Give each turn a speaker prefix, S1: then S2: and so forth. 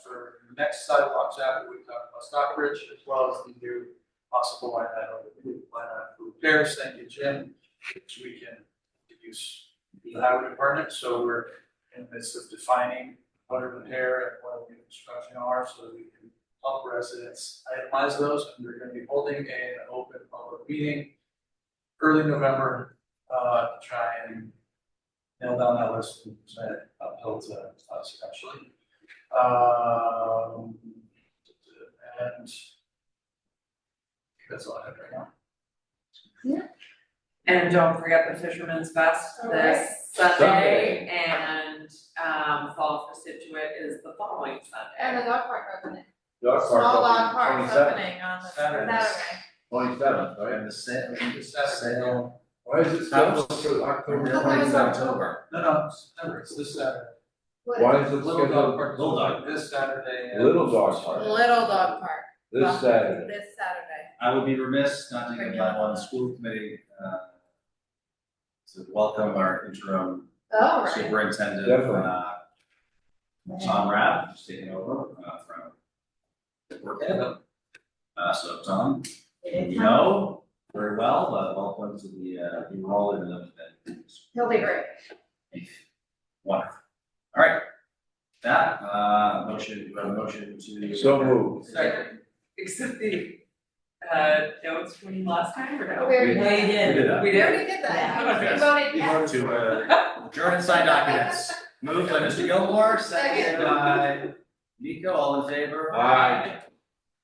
S1: the next sidewalks out, we talked about Stockbridge, as well as the new possible oh, line item, line item for repairs, thank you, Jim, which we can use the highway department, so we're in the midst of defining what a repair and what a reconstruction are, so that we can help residents itemize those, and we're gonna be holding an open public meeting early November, uh, to try and nail down that list, and present it uphill to uh, us eventually. Um, and that's all I have right now.
S2: And don't forget the Fisherman's Fest
S3: Alright.
S2: this Sunday, and, um, Fall for Situate is the following
S3: And the
S2: Sunday.
S3: dog park opening,
S4: Dog park
S3: small dog
S4: opening,
S3: park opening on the
S1: Saturday.
S3: Saturday.
S4: Twenty-seventh, right?
S5: And the sale,
S1: It's Saturday.
S5: sale.
S4: Why is it
S5: How
S4: scheduled for October?
S3: How come it's
S4: 27th?
S3: October?
S1: No, no, it's September, it's this Saturday.
S3: What-
S4: Why is it
S1: Little dog
S4: scheduled
S1: park,
S5: Little dog.
S1: this Saturday. and-
S4: Little dog park.
S3: Little dog park.
S4: this Saturday?
S3: This Saturday.
S5: I would be remiss not to give that one, the school committee, uh, to welcome our interim
S3: Oh, right.
S5: superintendent,
S4: Definitely.
S5: uh, Tom Rapp, who's taking over, uh, from work at him. Uh, so Tom, you know, very well, uh, welcome to the, uh, the role in the,
S3: He'll be great.
S5: Wonderful. All right. That, uh, motion, uh, motion to.
S4: So moved.
S1: Second.
S2: Except the, uh, notes from last time, or no?
S3: Very
S5: We-
S3: good.
S5: We did that.
S2: We
S3: We
S2: did?
S3: already did that.
S2: Yeah.
S3: We voted yes.
S5: To, uh, adjourn and sign documents. Moved by Mr. Gilmore, seconded by Nico, all in favor?
S4: Aye.